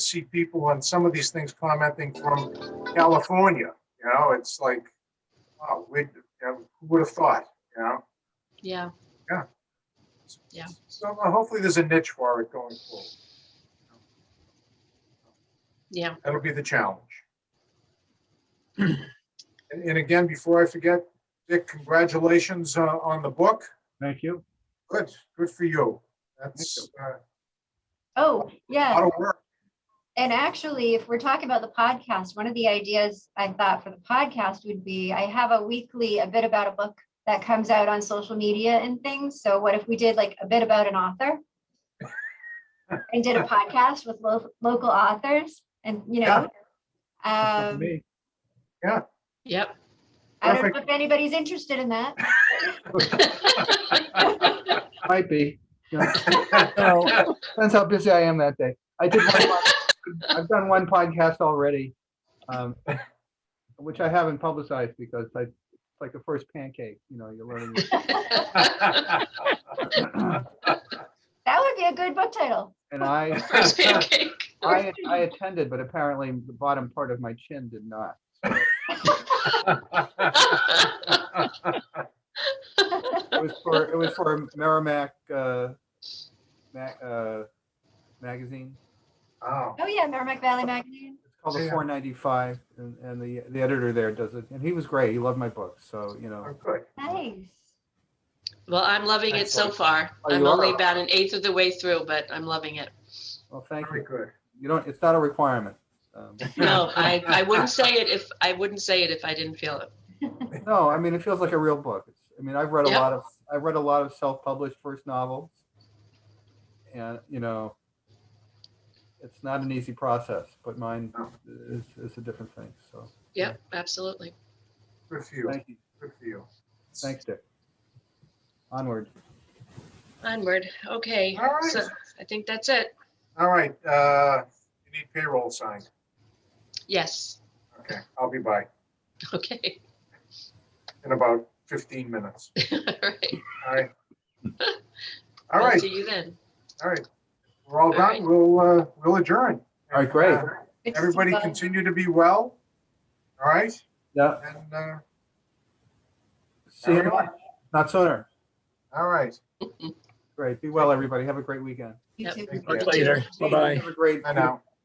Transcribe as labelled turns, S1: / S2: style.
S1: see people on some of these things commenting from California, you know, it's like, wow, we, who would have thought, you know?
S2: Yeah, Yeah.
S1: So uh, hopefully there's a niche for it going forward.
S2: yeah.
S1: That'll be the challenge. And, and again, before I forget, Dick, congratulations uh, on the book.
S3: Thank you.
S1: Good, good for you. That's uh,
S4: Oh,
S1: a
S4: yeah.
S1: lot of work.
S4: And actually, if we're talking about the podcast, one of the ideas I thought for the podcast would be I have a weekly, a bit about a book that comes out on social media and things. So what if we did like a bit about an author? And did a podcast with lo- local authors and, you know.
S3: That's up to
S4: Um,
S3: me.
S2: Yep.
S4: I don't
S1: Perfect.
S4: know if anybody's interested in that.
S3: Might be. Yeah. No, Depends how busy I am that day. I did, one pod- I've done one podcast already, um, which I haven't publicized because I, it's like the first pancake, you know, you're learning.
S4: That would be a good book title.
S3: And I,
S2: First pancake.
S3: I, I attended, but apparently the bottom part of my chin did not. It was for, it was for Merrimack, uh, ma- uh, magazine.
S1: Oh,
S4: Oh, yeah, Merrimack Valley Magazine.
S3: It's called the
S1: Yeah.
S3: 495, and, and the the editor there does it, and he was great. He loved my book, so you know.
S1: oh, good.
S4: Nice.
S2: Well, I'm loving it so
S1: Excellent.
S2: far.
S3: Oh,
S2: I'm
S3: you
S2: only
S3: are.
S2: about an eighth of the way through, but I'm loving it.
S3: Well, thank
S1: Very
S3: you.
S1: good.
S3: You don't. It's not a requirement. Um,
S2: No, I, I wouldn't say it if, I wouldn't say it if I didn't feel it.
S3: no, I mean it feels like a real book. It's, I mean I've read a
S2: Yeah.
S3: lot of I've read a lot of self-published first novels, and you know, it's not an easy process, but mine is is a different thing. So
S2: Yep, absolutely.
S1: Good for you.
S3: thank you.
S1: Good for you.
S3: Thanks, Dick. Onward.
S2: Onward. Okay.
S1: All right.
S2: So I think that's it.
S1: All right, uh, you need payroll signed.
S2: Yes.
S1: Okay, I'll be by
S2: Okay.
S1: in about 15 minutes.
S2: All right.
S1: All right. All
S2: I'll
S1: right,
S2: See you then.
S1: all right. We're all
S2: right.
S1: done. We'll, uh, we'll adjourn.
S3: All right, great.
S1: Uh,
S4: Good to see you
S1: Everybody
S4: both.
S1: continue to be well. All right,
S3: Yeah.
S1: and, uh,
S3: See you. in a
S1: everyone,
S3: month. Not sooner.
S1: all right.
S3: Great. Be well, everybody. Have a great weekend.
S4: You
S2: Yep.
S4: too.
S1: Thank you.
S5: Talk later. Bye-bye.
S3: Have a great.
S1: Bye now.